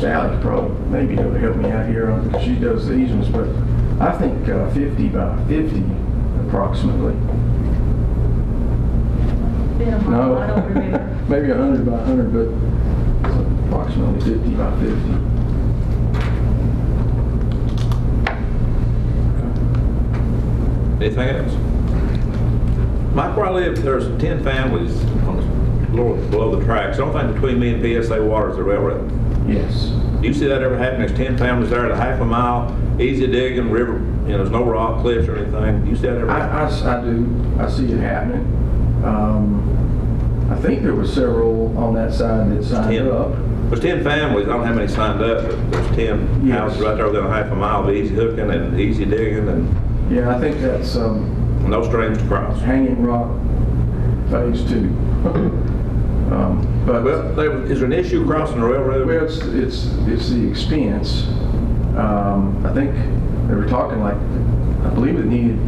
Sally could probably maybe help me out here, on she does the easements, but I think uh, 50 by 50 approximately. Been a No. while, I don't remember. Maybe 100 by 100, but it's approximately 50 by 50. Anything else? Mike, where I live, there's 10 families on the lower, below the tracks. The only thing between me and PSA water is the railroad. Yes. Do you see that ever happening? There's 10 families there at a half a mile, easy digging, river, you know, there's no rock cliffs or anything. Do you see that ever? I, happen? I s- I do, I see it happening. Um, I think there were several on that side that signed 10. up. There's 10 families, I don't have any signed up, but there's 10 Yes. houses right there within a half a mile of easy hooking and easy digging and Yeah, I think that's um, no streams to cross. Hanging Rock Phase Two. Um, But, Well, well, there- is there an issue crossing the railroad? it's, it's, it's the expense. Um, I think they were talking like, I believe it needed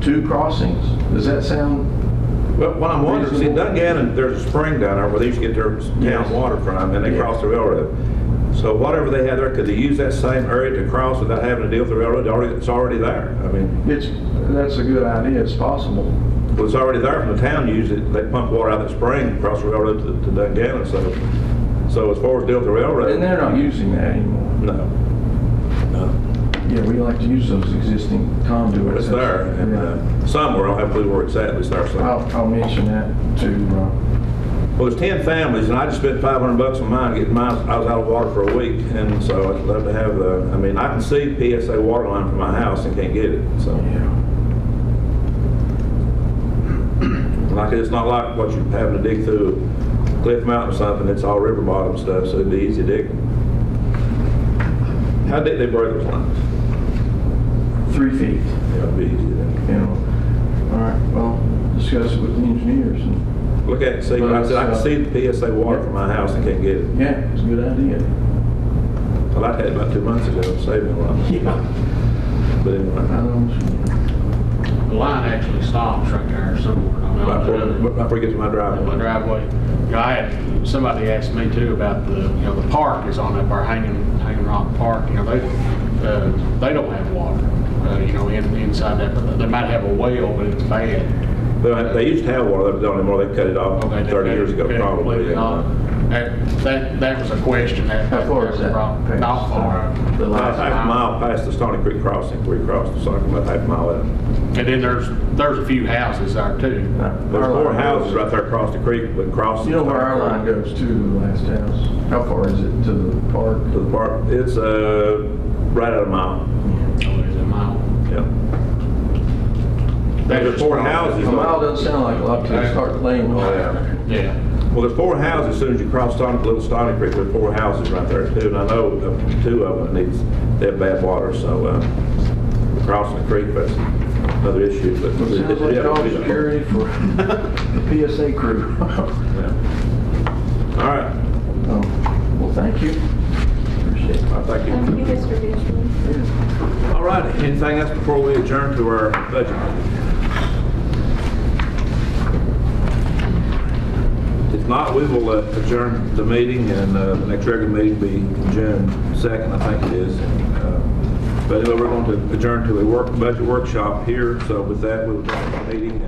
two crossings. Does that sound? Well, what I'm wondering, see, Reasonable. Dungannon, there's a spring down there where they used to get their Yes. town water from, and they Yeah. cross the railroad. So whatever they had there, could they use that same area to cross without having to deal with the railroad? Already- It's already there. I mean, It's, that's a good idea, it's possible. it was already there from the town used it. They pump water out of the spring, across the railroad to- to Dungannon, so, so as far as deal with the railroad. And they're not using that anymore. No. No. Yeah, we like to use those existing But conduits. it's there, and uh, somewhere, I don't have a clue where it's at, but it's there somewhere. I'll, I'll mention that to, uh, Well, there's 10 families, and I just spent 500 bucks on mine getting mine, I was out of water for a week, and so I'd love to have the, I mean, I can see PSA water line from my house and can't get it, so. uh, yeah, Like, it's not like what you're having to dig through Cliff Mountain or something, it's all river bottom stuff, so it'd be easy digging. How did they break those lines? three feet, Yeah, it'd be easy to you know. All right, well, discuss it with the engineers. and- look at it, see, but I said, I can see the PSA water from my house and can't get it. Yeah, it's a good idea. I liked that about two months ago, it saved me a lot, Yeah. but anyway. The line actually stops right there somewhere. I About don't know. before, before I get to my on my driveway. driveway. You know, I had, somebody asked me too about the, you know, the park is on up our Hanging, Hanging Rock Park, you know, they, uh, they don't have water, uh, you know, in, inside that, they might have a well, but it's bad. They, they used to have water, they don't anymore, they cut it Oh, off Okay, they- 30 years ago, they- they- probably. they- yeah. That, that, that was a question that. How far that is was that? brought- Not far. The About last, half a mile past the Stony Creek crossing, we crossed, so I'm about half a mile in. And then there's, there's a few houses there too. uh, There's four houses right there across the creek, but crossing. You know where our line goes to, the last house? How far is it to the park? To the park, it's, uh, right at a mile, So there's a mile. yeah. There's four houses. A mile doesn't sound like a lot to start laying. Oh, yeah. Yeah. Well, there's four houses, as soon as you cross Stony, Little Stony Creek, there's four houses right there too, and I know uh, two of them needs, they have bad water, so, uh, crossing the creek, that's another issue, but. It sounds like Yeah. dog security for the PSA crew. Yeah. All right. Um, Well, thank you. Appreciate it. Well, Thank Thank you, you. Mr. Beasley. All right, anything else before we adjourn to our budget? If not, we will uh, adjourn the meeting, and uh, the next regular meeting will be June 2nd, I think it is. Uh, But anyway, we're going to adjourn to a work, budget workshop here, so with that, we'll adjourn the meeting.